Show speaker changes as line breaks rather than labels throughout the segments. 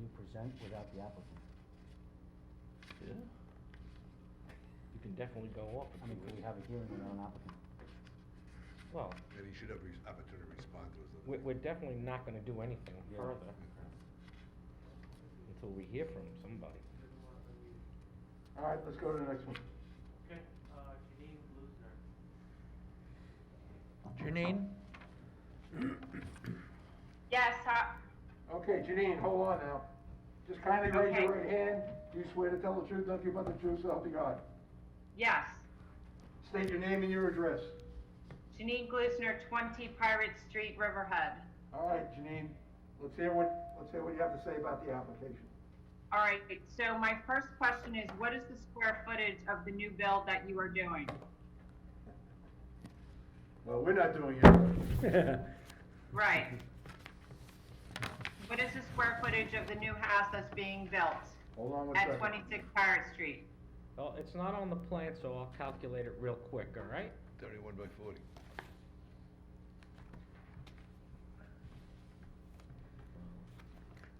you present without the applicant?
Yeah. You can definitely go up
I
if you
mean, could we
really
have a hearing without an applicant?
Well,
And he should have re- opportunity to respond to us. I
we're,
think.
we're definitely not gonna do anything
Yeah.
further until we hear from somebody.
All right, let's go to the next one.
Okay, uh, Janine Bluesner.
Janine?
Yes, hi,
Okay, Janine, hold on now. Just kindly raise
Okay.
your right hand. Do you swear to tell the truth, nothing but the truth, so help you God?
yes.
State your name and your address.
Janine Glusner, 20 Pirate Street, Riverhead.
All right, Janine, let's hear what, let's hear what you have to say about the application.
All right, so my first question is, what is the square footage of the new build that you are doing?
Well, we're not doing it.
Right. What is the square footage of the new house that's being built
Hold on one second.
at 26 Pirate Street?
Well, it's not on the plan, so I'll calculate it real quick, all right?
Thirty-one by forty.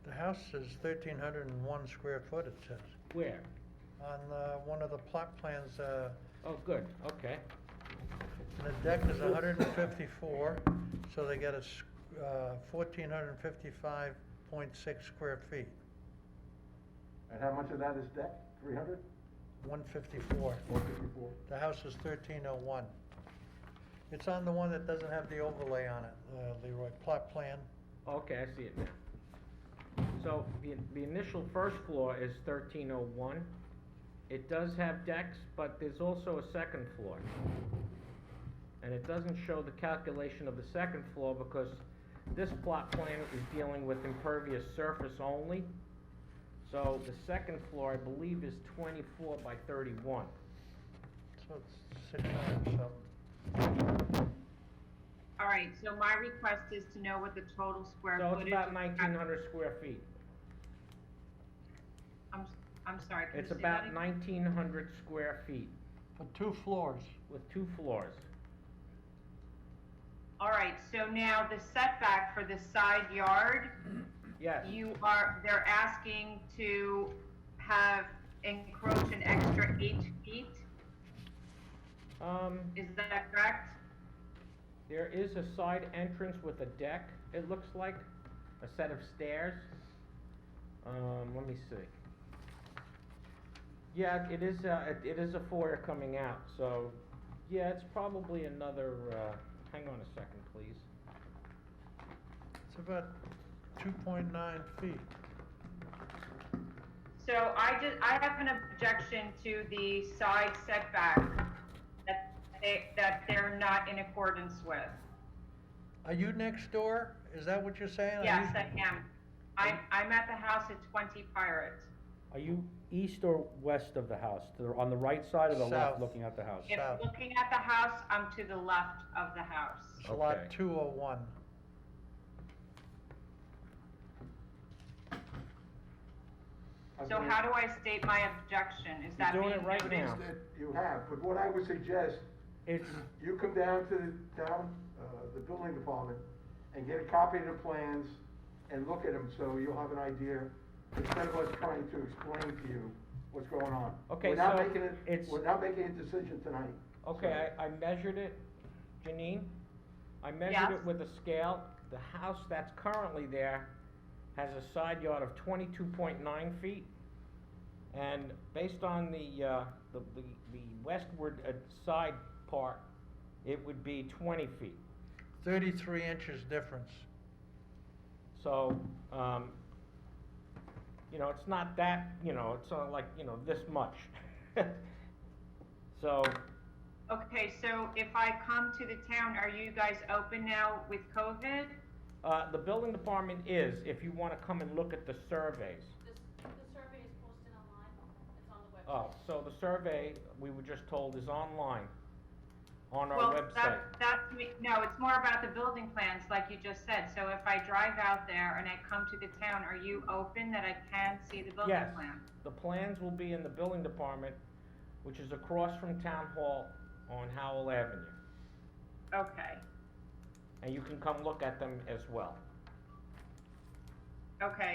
The house is thirteen hundred and one square foot, it says,
Where?
on, uh, one of the plot plans, uh,
Oh, good, okay.
the deck is hundred and fifty-four, so they got a, s- uh, fourteen hundred and fifty-five point six square feet,
And how much of that is deck? Three hundred?
one fifty-four.
One fifty-four.
The house is thirteen oh one. It's on the one that doesn't have the overlay on it, uh, Leroy, plot plan.
Okay, I see it now. So the, the initial first floor is thirteen oh one. It does have decks, but there's also a second floor. And it doesn't show the calculation of the second floor because this plot plan is dealing with impervious surface only. So the second floor, I believe, is twenty-four by thirty-one.
So it's six hundred and something.
All right, so my request is to know what the total square
So it's
footage.
about nineteen hundred square feet.
I'm, I'm sorry, can you
It's
say
about
that again?
nineteen hundred square feet
For two floors.
with two floors.
All right, so now the setback for the side yard,
Yes,
you are, they're asking to have encroach an extra eight feet,
um,
is that correct?
there is a side entrance with a deck, it looks like, a set of stairs. Um, let me see. Yeah, it is, uh, it- it is a foyer coming out, so, yeah, it's probably another, uh, hang on a second, please.
It's about two point nine feet.
So I just, I have an objection to the side setback that they, that they're not in accordance with.
Are you next door? Is that what you're saying? Are
Yes,
you-
I am. I'm, I'm at the house at twenty Pirate.
Are you east or west of the house? To the- On the right side or the
South.
left, looking at the house?
If
South.
looking at the house, I'm to the left of the house.
It's lot
Okay.
two oh one.
So how do I state my objection? Is that
Oh. doing
being
it right
noted?
now.
You have, but what I would suggest,
It's,
you come down to the town, uh, the building department and get a copy of the plans and look at them, so you'll have an idea, instead of us trying to explain to you what's going on.
Okay,
We're not
so
making it-
it's-
We're not making a decision tonight.
Okay, I, I measured it, Janine, I measured
Yes.
it with a scale, the house that's currently there has a side yard of twenty-two point nine feet. And based on the, uh, the, the, the westward uh, side part, it would be twenty feet.
Thirty-three inches difference.
So, um, you know, it's not that, you know, it's not like, you know, this much. So,
Okay, so if I come to the town, are you guys open now with COVID?
uh, the building department is, if you wanna come and look at the surveys.
This, the survey is posted online, it's on the website.
Oh, so the survey, we were just told, is online, on our
Well,
website.
that, that's me, no, it's more about the building plans, like you just said. So if I drive out there and I come to the town, are you open that I can see the building
Yes,
plan?
the plans will be in the building department, which is across from Town Hall on Howell Avenue.
Okay,
And you can come look at them as well.
okay.